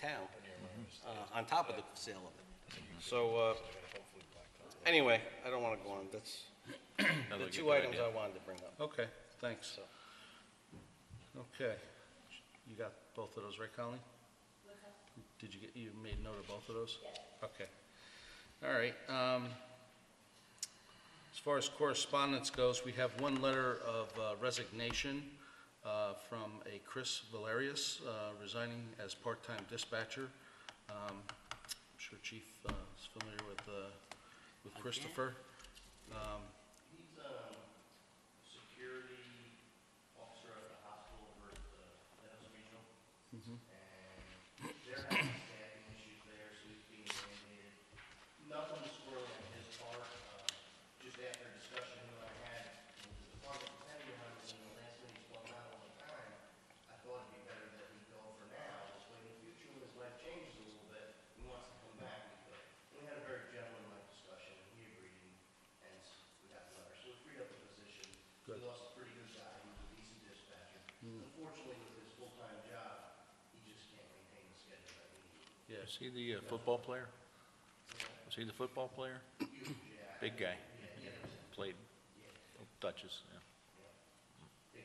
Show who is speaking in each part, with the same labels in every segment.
Speaker 1: town, uh, on top of the sale of it. So, uh, anyway, I don't want to go on, that's the two items I wanted to bring up.
Speaker 2: Okay, thanks. Okay, you got both of those, right, Colleen? Did you get, you made note of both of those? Okay. All right, um, as far as correspondence goes, we have one letter of uh, resignation, uh, from a Chris Valerius, uh, resigning as part-time dispatcher. Um, I'm sure Chief, uh, is familiar with, uh, with Christopher. Um,
Speaker 3: He's um, a security officer at the hospital over at the Meadows Regional. And they're having staffing issues there, so he's being mandated. Nothing squirrely on his part, uh, just after a discussion that I had with the department, depending on when the last meeting's going out all the time, I thought it'd be better that we go for now, this way in the future, when his life changes a little bit, he wants to come back, we could. We had a very gentlemanlike discussion, and he agreed, and s- we got the letter, so we freed up the position. We
Speaker 2: Good.
Speaker 3: lost a pretty good guy, he was a decent dispatcher. Unfortunately, with his full-time job, he just can't maintain the schedule that he needs.
Speaker 2: Yes,
Speaker 4: Is he the uh, football player? Was he the football player? Big guy. Played Duchess, yeah.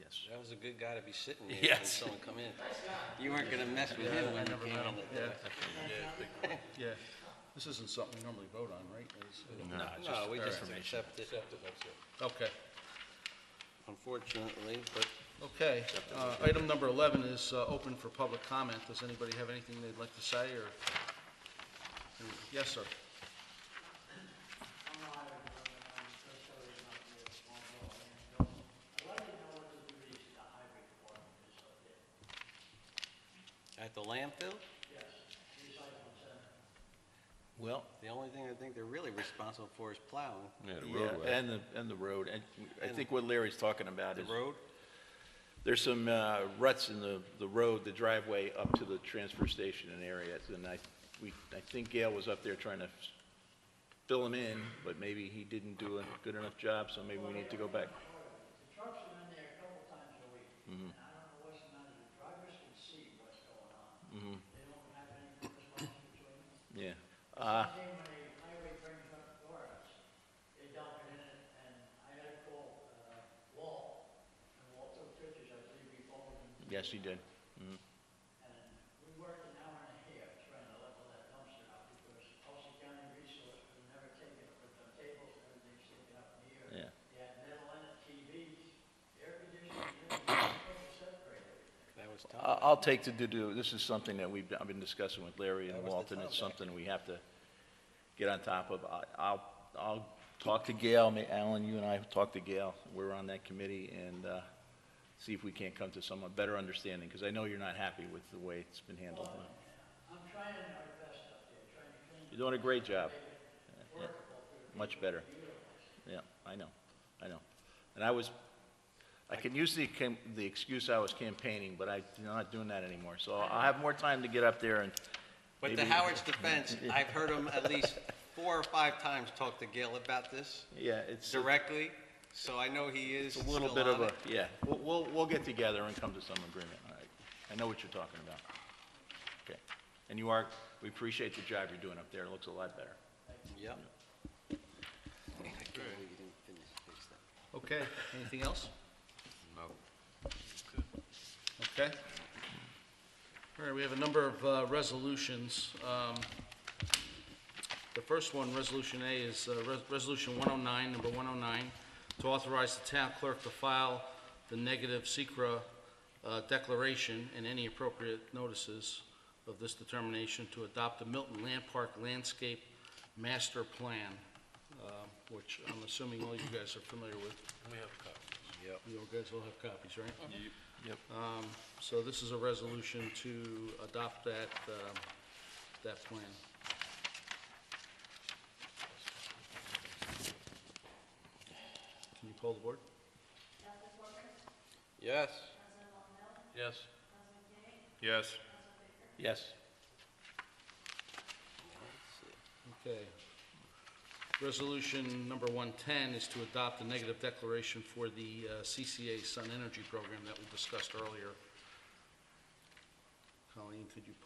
Speaker 4: Yes.
Speaker 1: That was a good guy to be sitting there when
Speaker 4: Yes.
Speaker 1: someone come in. You weren't going to mess with him when you came in. the door.
Speaker 2: yeah. This isn't something we normally vote on, right? Is-
Speaker 4: No, it's just
Speaker 1: No, we just
Speaker 4: information.
Speaker 1: accept it,
Speaker 2: Okay,
Speaker 1: unfortunately, but
Speaker 2: okay. Uh, Item number 11 is uh, open for public comment. Does anybody have anything they'd like to say, or? Yes, sir.
Speaker 1: at the landfill,
Speaker 4: Well,
Speaker 1: the only thing I think they're really responsible for is plowing.
Speaker 4: yeah, and the, and the road, and I think what Larry's talking about
Speaker 1: The
Speaker 4: is,
Speaker 1: road,
Speaker 4: there's some uh, ruts in the, the road, the driveway up to the transfer station and area, and I, we, I think Gail was up there trying to fill them in, but maybe he didn't do a good enough job, so maybe we need to go back.
Speaker 5: The trucks are in there a couple times a week, and I don't know what's the matter, the drivers can see what's going on. They don't have any correspondence between them.
Speaker 4: Yeah. Uh,
Speaker 5: One day when the highway brings up Doris, they dump it in, it, and I had to call, uh, Walt, and Walt took pictures, I believe he followed him.
Speaker 4: yes, he did.
Speaker 5: And we worked an hour and a half trying to level that dumpster out, because Ulster County Resource would never take it, but the tables, and everything's sticking up in the air.
Speaker 4: Yeah.
Speaker 5: Yeah, metal in it, TVs, air conditioning, you know, separate
Speaker 1: that
Speaker 5: everything.
Speaker 1: was
Speaker 4: I-
Speaker 1: tough.
Speaker 4: I'll take to do, this is something that we've, I've been discussing with Larry
Speaker 1: That
Speaker 4: and
Speaker 1: was the
Speaker 4: Walt, and it's
Speaker 1: topic.
Speaker 4: something we have to get on top of. I- I'll, I'll talk to Gail, May- Alan, you and I have talked to Gail, we're on that committee, and uh, see if we can't come to some better understanding, because I know you're not happy with the way it's been handled.
Speaker 5: I'm trying our best up there, trying to clean
Speaker 4: You're doing a great job. Yeah, Much better. Yeah, I know, I know. And I was, I can use the, cam- the excuse I was campaigning, but I'm not doing that anymore. So I'll have more time to get up there and
Speaker 1: But to
Speaker 4: maybe-
Speaker 1: Howard's defense, I've heard him at least four or five times talk to Gil about this
Speaker 4: Yeah, it's a
Speaker 1: directly, so I know he is
Speaker 4: it's a little
Speaker 1: still
Speaker 4: bit of
Speaker 1: on
Speaker 4: a,
Speaker 1: it.
Speaker 4: yeah, we'll, we'll, we'll get together and come to some agreement. All right. I know what you're talking about. Okay. And you are, we appreciate the job you're doing up there. It looks a lot better.
Speaker 1: Yep. I can't believe you didn't finish, fix that.
Speaker 2: Okay, anything else? No. Okay. All right, we have a number of uh, resolutions. Um, The first one, Resolution A, is uh, Res- Resolution 109, number 109, to authorize the town clerk to file the negative secra uh, declaration and any appropriate notices of this determination to adopt the Milton Land Park Landscape Master Plan, uh, which I'm assuming all you guys are familiar with. We have copies. Yep. You guys all have copies, right?
Speaker 4: Yep.
Speaker 2: Um, So this is a resolution to adopt that, um, that plan. Can you poll the board?
Speaker 1: Yes.
Speaker 4: Yes. Yes. Yes.
Speaker 2: Okay. Resolution number 110 is to adopt a negative declaration for the uh, CCA Sun Energy Program that we discussed earlier. Colleen, could you